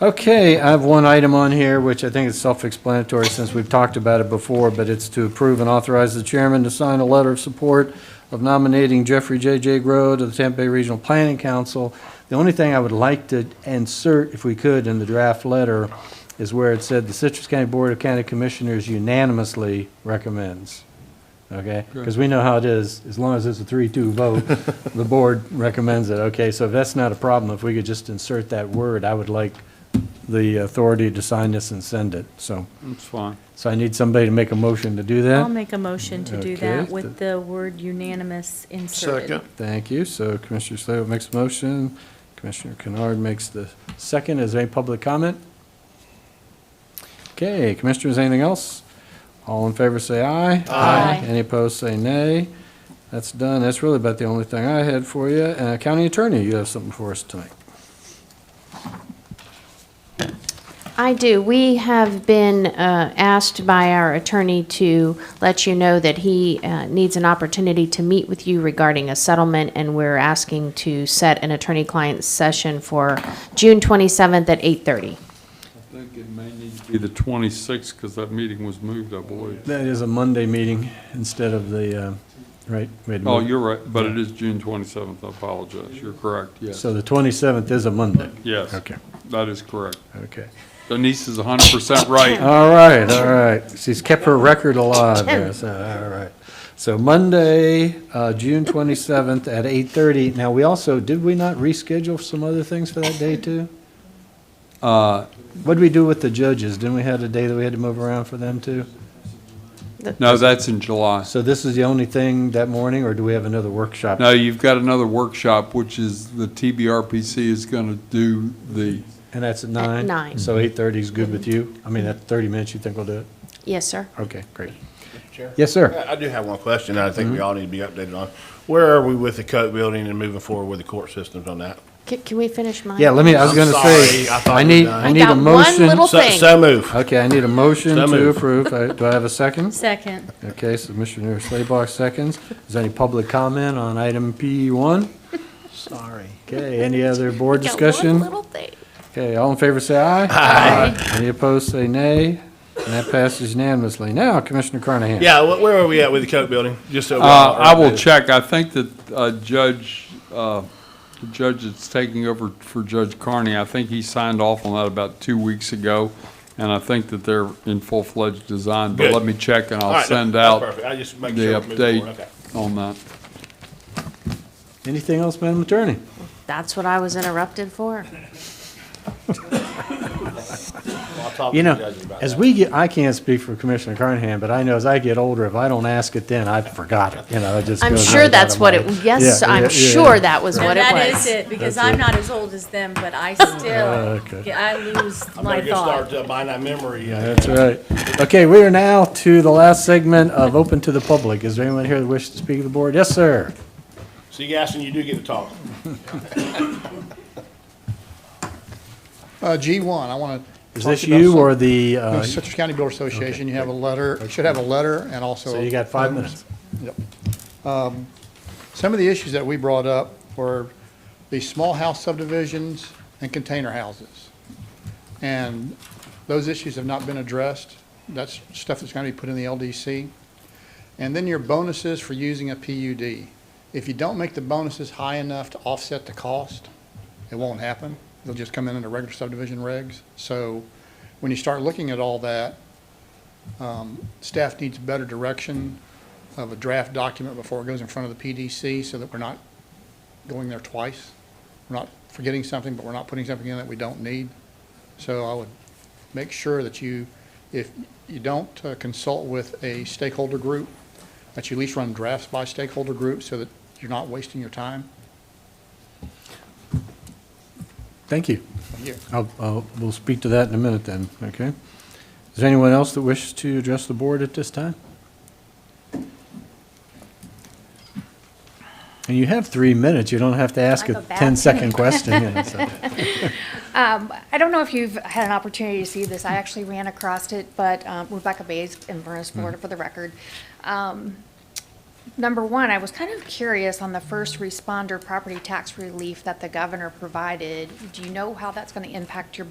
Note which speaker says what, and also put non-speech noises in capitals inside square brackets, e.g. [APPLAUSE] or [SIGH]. Speaker 1: Okay, I have one item on here, which I think is self-explanatory since we've talked about it before, but it's to approve and authorize the chairman to sign a letter of support of nominating Jeffrey J.J. Grow to the Tampa Bay Regional Planning Council. The only thing I would like to insert, if we could, in the draft letter is where it said, "The Citrus County Board of County Commissioners unanimously recommends." Okay? Because we know how it is, as long as it's a 3-2 vote, the board recommends it. Okay, so if that's not a problem, if we could just insert that word, I would like the authority to sign this and send it, so.
Speaker 2: That's fine.
Speaker 1: So I need somebody to make a motion to do
Speaker 3: I'll
Speaker 1: that.
Speaker 3: make a motion to do
Speaker 1: Okay.
Speaker 3: that with the word unanimous inserted.
Speaker 4: Second.
Speaker 1: Thank you. So Commissioner Slayo makes a motion, Commissioner Kennard makes the second. Is there any public comment? Okay, Commissioners, anything else? All in favor, say aye.
Speaker 3: Aye.
Speaker 1: Any opposed, say nay. That's done. That's really about the only thing I had for you. Uh, County Attorney, you have something for us tonight.
Speaker 5: I do. We have been uh, asked by our attorney to let you know that he uh, needs an opportunity to meet with you regarding a settlement, and we're asking to set an attorney-client session for June 27th at 8:30.
Speaker 2: I think it may need to be the 26th, because that meeting was moved, I believe.
Speaker 1: That is a Monday meeting instead of the, uh, right? we had
Speaker 2: Oh,
Speaker 1: moved-
Speaker 2: you're right, but it is June 27th, I apologize. You're correct, yes.
Speaker 1: So the 27th is a Monday.
Speaker 2: Yes, that is correct.
Speaker 1: okay.
Speaker 2: Denise is 100% right.
Speaker 1: All right, all right. She's kept her record alive there, so, all right. So Monday, uh, June 27th at 8:30. Now, we also, did we not reschedule some other things for that day, too?
Speaker 2: Uh,
Speaker 1: What did we do with the judges? Didn't we have a day that we had to move around for them, too?
Speaker 2: No, that's in July.
Speaker 1: So this is the only thing that morning, or do we have another workshop?
Speaker 2: No, you've got another workshop, which is the TBRPC is going to do the,
Speaker 1: And that's at nine.
Speaker 5: nine.
Speaker 1: So 8:30 is good with you? I mean, that 30 minutes, you think we'll do it?
Speaker 5: Yes, sir.
Speaker 1: Okay, great.
Speaker 4: Chair?
Speaker 1: Yes, sir.
Speaker 4: I I do have one question that I think
Speaker 2: Mm-hmm.
Speaker 4: we all need to be updated on. Where are we with the Coke building and moving forward with the court systems on that?
Speaker 5: Ca- Can we finish mine?
Speaker 1: Yeah, let me, I was
Speaker 4: I'm
Speaker 1: going to say,
Speaker 4: sorry, I thought
Speaker 1: I
Speaker 4: we
Speaker 1: need,
Speaker 4: were done.
Speaker 1: I
Speaker 5: I
Speaker 1: need a
Speaker 5: got one
Speaker 1: motion.
Speaker 5: little
Speaker 4: So,
Speaker 5: thing.
Speaker 4: so move.
Speaker 1: Okay, I need a motion
Speaker 4: So
Speaker 1: to
Speaker 4: moved.
Speaker 1: approve. I- Do I have a second?
Speaker 3: Second.
Speaker 1: Okay, so Commissioner Slaybach seconds. Is there any public comment on item P1?
Speaker 4: Sorry.
Speaker 1: Okay, any other board
Speaker 5: Got one
Speaker 1: discussion?
Speaker 5: little thing.
Speaker 1: Okay, all in favor, say aye. Aye. Any opposed, say nay. And that passes unanimously. Now, Commissioner Carnahan.
Speaker 4: Yeah, wh- where are we at with the Coke building? Just so. we're
Speaker 2: Uh,
Speaker 4: all
Speaker 2: I will
Speaker 4: updated.
Speaker 2: check. I think that uh, Judge, uh, the judge that's taking over for Judge Carney, I think he signed off on that about two weeks ago, and I think that they're in full-fledged design, but
Speaker 4: Good.
Speaker 2: let me check and
Speaker 4: All
Speaker 2: I'll
Speaker 4: right, that-
Speaker 2: send
Speaker 4: that's
Speaker 2: out
Speaker 4: Perfect. I just
Speaker 2: the
Speaker 4: make sure. we move forward. Okay.
Speaker 2: update on that.
Speaker 1: Anything else, Madam Attorney?
Speaker 5: That's what I was interrupted for.
Speaker 4: Well, I'll talk
Speaker 1: You
Speaker 4: to
Speaker 1: know,
Speaker 4: the judges about
Speaker 1: as
Speaker 4: that.
Speaker 1: we get, I can't speak for Commissioner Carnahan, but I know as I get older, if I don't ask it then, I've forgot it, you know, it just
Speaker 5: I'm
Speaker 1: goes
Speaker 5: sure
Speaker 1: right out
Speaker 5: that's
Speaker 1: of
Speaker 5: what
Speaker 1: mind.
Speaker 5: it, yes,
Speaker 1: Yeah, yeah,
Speaker 5: I'm
Speaker 1: yeah.
Speaker 5: sure that was
Speaker 3: Now,
Speaker 5: what it was.
Speaker 3: that is it, because
Speaker 1: That's
Speaker 3: I'm
Speaker 1: it. Oh.
Speaker 3: not as old as them, but I
Speaker 1: okay.
Speaker 3: still, yeah, I lose
Speaker 4: I'm
Speaker 3: my
Speaker 4: gonna get
Speaker 3: thought.
Speaker 4: started buying that memory. uh,
Speaker 1: That's right. Okay, we are now to the last segment of Open to the Public. Is there anyone here that wishes to speak to the board? Yes, sir.
Speaker 4: See, Gaston, you do get to talk.
Speaker 6: Uh, G1, I want to.
Speaker 1: Is this you or the, uh,
Speaker 6: Citrus County Builder Association, you have a letter, should have a letter and also.
Speaker 1: so you got five minutes?
Speaker 6: Some of the issues that we brought up were the small house subdivisions and container houses. And those issues have not been addressed. That's stuff that's going to be put in the LDC. And then your bonuses for using a PUD. If you don't make the bonuses high enough to offset the cost, it won't happen. They'll just come in under regular subdivision regs. So when you start looking at all that, um, staff needs better direction of a draft document before it goes in front of the PDC so that we're not going there twice. We're not forgetting something, but we're not putting something in that we don't need. So I would make sure that you, if you don't uh, consult with a stakeholder group, that you at least run drafts by stakeholder group so that you're not wasting your time.
Speaker 1: Thank you.
Speaker 6: Thank you.
Speaker 1: I'll, I'll, we'll speak to that in a minute then, okay? Is there anyone else that wishes to address the board at this time? And you have three minutes. You don't have to ask a
Speaker 7: I go back. [LAUGHS]
Speaker 1: 10-second question. you know, so.
Speaker 7: Um, I don't know if you've had an opportunity to see this. I actually ran across it, but um, Rebecca Bays, Inverness, Florida, for the record. Um, number one, I was kind of curious on the first responder property tax relief that the governor provided. Do you know how that's going to impact your